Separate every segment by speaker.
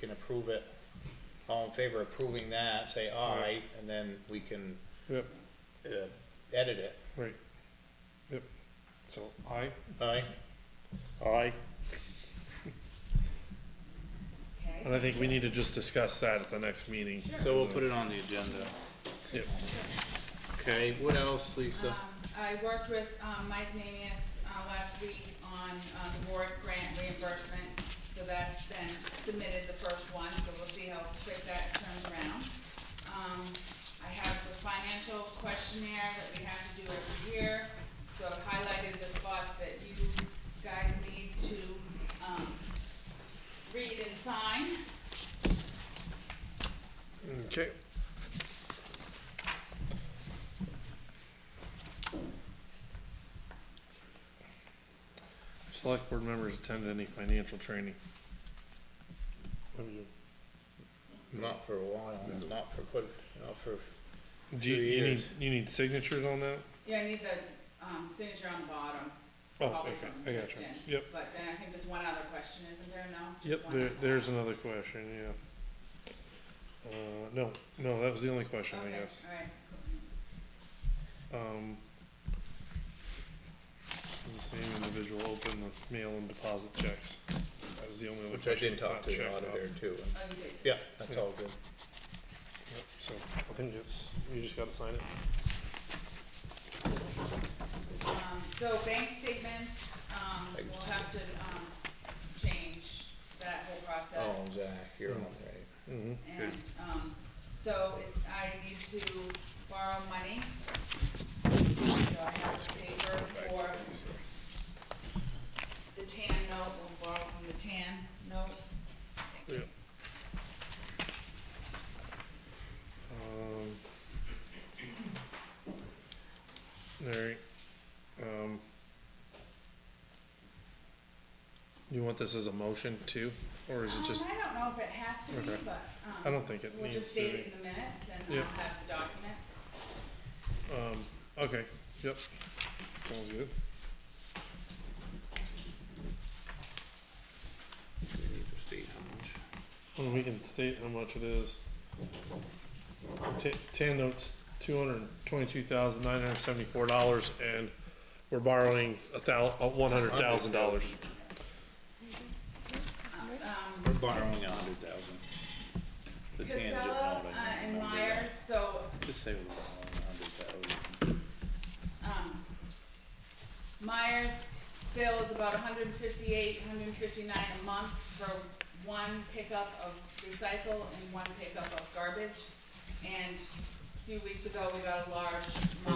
Speaker 1: can approve it. All in favor of approving that, say aye, and then we can,
Speaker 2: Yep,
Speaker 1: uh, edit it,
Speaker 2: right. Yep. So aye?
Speaker 1: aye?
Speaker 2: Aye.
Speaker 3: Okay.
Speaker 2: And I think we need to just discuss that at the next meeting.
Speaker 1: So we'll put it on the agenda.
Speaker 2: Yep.
Speaker 1: Okay, what else, Lisa?
Speaker 3: Um, I worked with, um, Mike Namias, uh, last week on, um, board grant reimbursement, so that's been submitted, the first one, so we'll see how quick that turns around. Um, I have the financial questionnaire that we have to do every year, so I've highlighted the spots that you guys need to, um, read and sign.
Speaker 2: Okay. Select board members attended any financial training?
Speaker 1: Not for a while, not for, quite- not for,
Speaker 2: Do you,
Speaker 1: Two
Speaker 2: you need,
Speaker 1: years.
Speaker 2: you need signatures on that?
Speaker 3: Yeah, I need the, um, signature on the bottom.
Speaker 2: Oh,
Speaker 3: Probably
Speaker 2: okay,
Speaker 3: from
Speaker 2: I got you.
Speaker 3: Tristan.
Speaker 2: Yep,
Speaker 3: But then I think there's one other question, isn't there, no? Just
Speaker 2: yep,
Speaker 3: one
Speaker 2: there,
Speaker 3: other.
Speaker 2: there's another question, yeah. Uh, no, no, that was the only question, I
Speaker 3: Okay,
Speaker 2: guess.
Speaker 3: all right.
Speaker 2: Um, does the same individual open the mail and deposit checks? That was the only other
Speaker 1: which I
Speaker 2: question
Speaker 1: did
Speaker 2: that's
Speaker 1: talk
Speaker 2: not
Speaker 1: to the
Speaker 2: checked
Speaker 1: auditor
Speaker 2: off.
Speaker 1: too.
Speaker 3: Oh, you did.
Speaker 1: Yeah, that's all good.
Speaker 2: Yep, So, I think it's, you just gotta sign it.
Speaker 3: Um, so bank statements, um,
Speaker 1: Thank
Speaker 3: we'll have to, um, change that whole process.
Speaker 1: Oh, Zach, you're on, right?
Speaker 2: Mm-hmm.
Speaker 3: And, um, so it's, I need to borrow money. So I have paper for the tan note, we'll borrow from the tan note. Thank you.
Speaker 2: Yep. Um. Alright, um. You want this as a motion too, or is it
Speaker 3: Um,
Speaker 2: just,
Speaker 3: I don't know if it has to be,
Speaker 2: Okay.
Speaker 3: but,
Speaker 2: I
Speaker 3: um,
Speaker 2: don't think it
Speaker 3: we'll just
Speaker 2: needs to
Speaker 3: state
Speaker 2: be,
Speaker 3: it in the minutes and
Speaker 2: Yep.
Speaker 3: I'll have the document.
Speaker 2: um, okay, yep, sounds good.
Speaker 1: We need to state how much.
Speaker 2: Well, we can state how much it is. Ta- Tan notes, two hundred and twenty-two thousand, nine hundred and seventy-four dollars, and we're borrowing a thou, uh, one hundred thousand dollars.
Speaker 3: Um,
Speaker 1: We're borrowing a hundred thousand. The tangent
Speaker 3: Casella
Speaker 1: note, I
Speaker 3: uh,
Speaker 1: don't
Speaker 3: and
Speaker 1: remember that.
Speaker 3: Myers, so,
Speaker 1: Just say we're borrowing a hundred thousand.
Speaker 3: um, Myers bill is about 158, hundred and fifty-eight, hundred and fifty-nine a month for one pickup of recycle and one pickup of garbage. And a few weeks ago, we got a large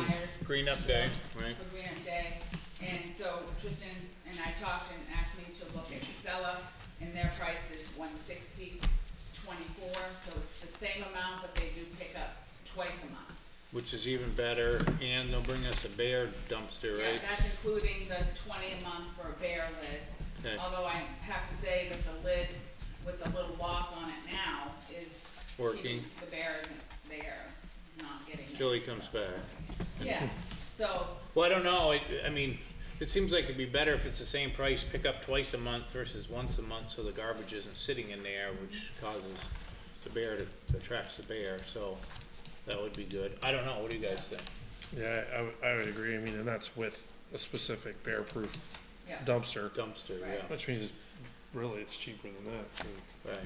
Speaker 3: Myers
Speaker 1: Green up day, right?
Speaker 3: for Green Up Day. And so Tristan and I talked and asked me to look at Casella, and their price is one sixty twenty-four, so it's the same amount, but they do pick up twice a month.
Speaker 1: Which is even better, and they'll bring us a bear dumpster,
Speaker 3: Yeah,
Speaker 1: right?
Speaker 3: that's including the twenty a month for a bear lid,
Speaker 1: Okay.
Speaker 3: although I have to say that the lid with the little lock on it now is.
Speaker 1: Working.
Speaker 3: keeping- The bear isn't there, it's not getting it.
Speaker 1: Till he comes back.
Speaker 3: Yeah, so,
Speaker 1: Well, I don't know, I, I mean, it seems like it'd be better if it's the same price, pick up twice a month versus once a month, so the garbage isn't sitting in there, which causes the bear to, attracts the bear, so that would be good. I don't know, what do you guys think?
Speaker 2: Yeah, I, would- I would agree, I mean, and that's with a specific bear-proof
Speaker 3: yeah.
Speaker 2: dumpster,
Speaker 1: Dumpster, yeah,
Speaker 2: which means really it's cheaper than that. too.
Speaker 1: right.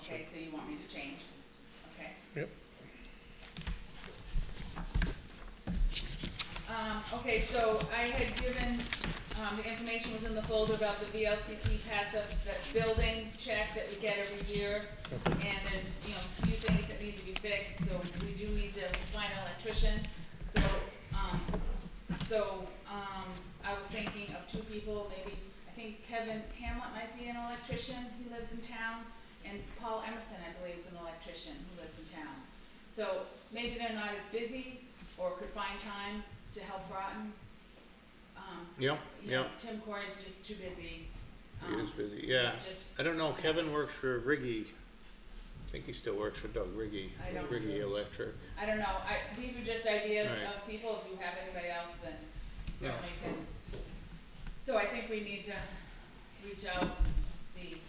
Speaker 3: Okay, so you want me to change? Okay.
Speaker 2: Yep.
Speaker 3: Um, okay, so I had given, um, the information was in the folder about the VLCT passive, that building check that we get every year. And there's, you know, a few things that need to be fixed, so we do need to find an electrician. So, um, so, um, I was thinking of two people, maybe, I think Kevin Hamlet might be an electrician, he lives in town. And Paul Emerson, I believe, is an electrician who lives in town. So maybe they're not as busy or could find time to help Groton. Um,
Speaker 1: Yeah,
Speaker 3: you
Speaker 1: yeah,
Speaker 3: know, Tim Corey's just too busy.
Speaker 1: he
Speaker 3: Um,
Speaker 1: is busy, yeah.
Speaker 3: It's just,
Speaker 1: I don't know, Kevin works for Riggy. I think he still works for Doug Riggy,
Speaker 3: I don't-
Speaker 1: Riggy Electric.
Speaker 3: I don't know, I, these are just ideas
Speaker 1: Right.
Speaker 3: of people, if you have anybody else, then certainly can. So I think we need to reach out, see,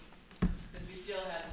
Speaker 3: because we still have